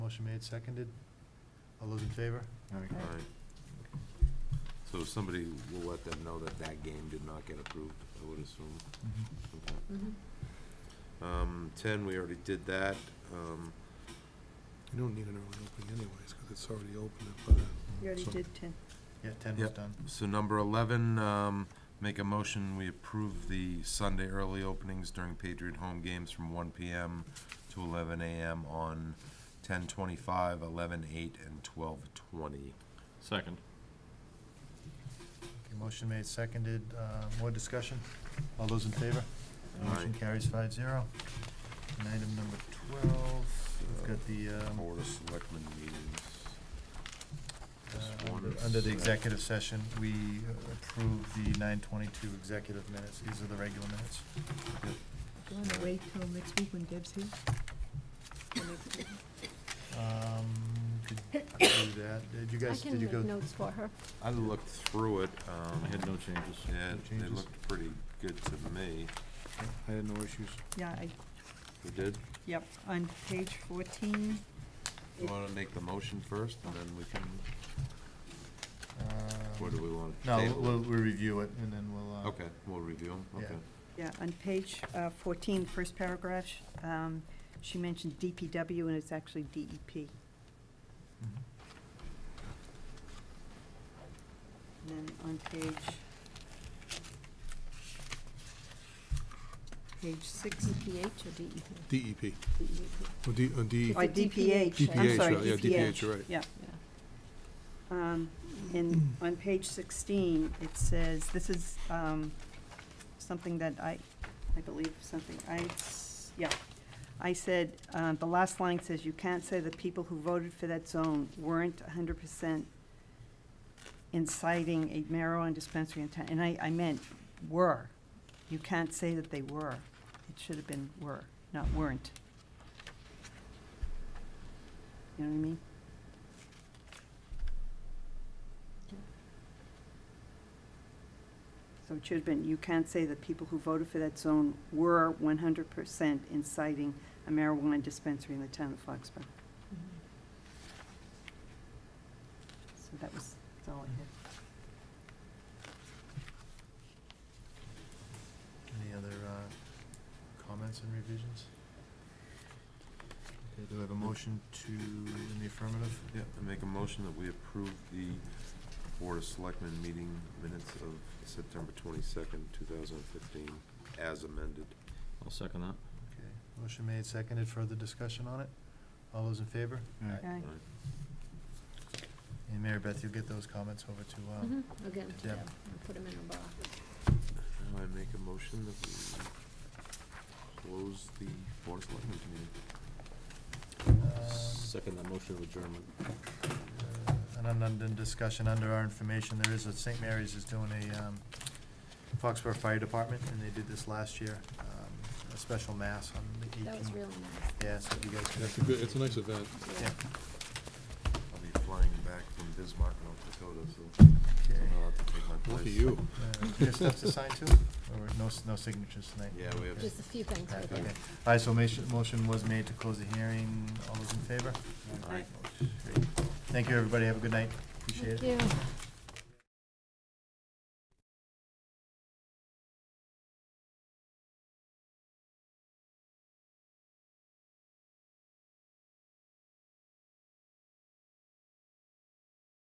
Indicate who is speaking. Speaker 1: Motion made, seconded. All those in favor?
Speaker 2: All right. So somebody will let them know that that game did not get approved, I would assume. Okay.
Speaker 3: Mm-hmm.
Speaker 2: Um, ten, we already did that. Um,
Speaker 4: You don't need an early opening anyways, because it's already open at uh, five.
Speaker 3: You already
Speaker 4: So-
Speaker 3: did ten.
Speaker 1: Yeah, ten was
Speaker 2: Yep.
Speaker 1: done.
Speaker 2: so number eleven, um, make a motion, we approve the Sunday early openings during Patriot home games from one PM to eleven AM on 10:25, 11:08, and twelve twenty.
Speaker 5: Second.
Speaker 1: Okay, motion made, seconded. Uh, more discussion? All those in favor? Motion
Speaker 2: Aye.
Speaker 1: carries five zero. And item number twelve, we've got the, um,
Speaker 2: Uh, Board of Selectmen meetings. This
Speaker 1: Uh,
Speaker 2: one
Speaker 1: under-
Speaker 2: is
Speaker 1: Under the
Speaker 2: set.
Speaker 1: executive session, we uh, approve the nine twenty-two executive minutes. These are the regular minutes.
Speaker 3: Do you wanna wait till next week when Deb's here?
Speaker 1: Um, did you do that? Did you
Speaker 6: I
Speaker 1: guys,
Speaker 6: can
Speaker 1: did you
Speaker 6: make
Speaker 1: go?
Speaker 6: notes for her.
Speaker 2: I looked through it, um.
Speaker 5: I had no changes.
Speaker 2: Yeah,
Speaker 1: No
Speaker 2: they
Speaker 1: changes?
Speaker 2: looked pretty good to me.
Speaker 4: I had no issues.
Speaker 3: Yeah, I,
Speaker 2: You did?
Speaker 3: yep, on page fourteen,
Speaker 2: You wanna make the motion first, and then we can, or do
Speaker 1: um,
Speaker 2: we wanna
Speaker 1: No,
Speaker 2: table
Speaker 1: we'll,
Speaker 2: it?
Speaker 1: we'll review it and then we'll, uh.
Speaker 2: Okay, we'll review 'em,
Speaker 1: Yeah.
Speaker 2: okay.
Speaker 3: yeah, on page uh, fourteen, first paragraph, sh- um, she mentioned DPW and it's actually E DEP.
Speaker 1: Mhm.
Speaker 3: And then on page, page six,
Speaker 6: DPH or E DEP?
Speaker 4: DEP, or E D, uh, D,
Speaker 3: or
Speaker 6: It's a
Speaker 3: DPH, I'm
Speaker 4: DPH,
Speaker 3: sorry,
Speaker 4: right, yeah, DPH, you're right.
Speaker 3: Yeah. Um, And on page 16, it says, this is um, something that I, I believe something, I, s- yeah. I said, uh, the last line says, you can't say the people who voted for that zone weren't 100% inciting a marijuana dispensary in town. And I, I meant were. You can't say that they were. It should have been were, not weren't. You know what I mean? So it should have been, you can't say that people who voted for that zone were one hundred percent inciting a marijuana dispensary in the town of Foxborough. So that was, that's all I had.
Speaker 1: Any other, uh, comments and revisions? Okay, do I have a motion to, in the affirmative?
Speaker 2: Yeah, I make a motion that we approve the Board of Selectmen meeting minutes of September twenty-second, two thousand and fifteen, as amended.
Speaker 5: I'll second that.
Speaker 1: Okay, motion made, seconded. Further discussion on it? All those in favor?
Speaker 3: Aye.
Speaker 2: Alright.
Speaker 1: And Mary Beth, you'll get those comments over to, um,
Speaker 6: Mhm. I'll get 'em to
Speaker 1: Deb.
Speaker 6: Deb and put 'em in a box.
Speaker 2: Now I make a motion that we close the Board of Selectmen meeting.
Speaker 1: um,
Speaker 6: Mm-hmm.
Speaker 5: Second that motion of adjournment.
Speaker 1: Uh, And an undone discussion under our information, there is a, St. Mary's is doing a, um, Foxborough Fire Department, and they did this last year, um, a special mass on the eighteenth.
Speaker 6: That was really nice.
Speaker 1: Yeah, so if you guys could.
Speaker 4: It's a good, it's a nice event.
Speaker 1: Yeah,
Speaker 2: I'll be flying back from Bismarck, North Dakota, so
Speaker 1: okay.
Speaker 2: I'll have to take my place.
Speaker 4: Look at you.
Speaker 1: Uh, There's stuff to sign too, or no, s- no signatures tonight?
Speaker 2: Yeah, we have
Speaker 1: Okay.
Speaker 6: Just a few things I
Speaker 1: Alright,
Speaker 6: think.
Speaker 1: okay. Alright, so motion, motion was made to close the hearing, all those in favor?
Speaker 3: Aye.
Speaker 1: Great. Thank you, everybody, have a good night, appreciate it.
Speaker 6: Thank you.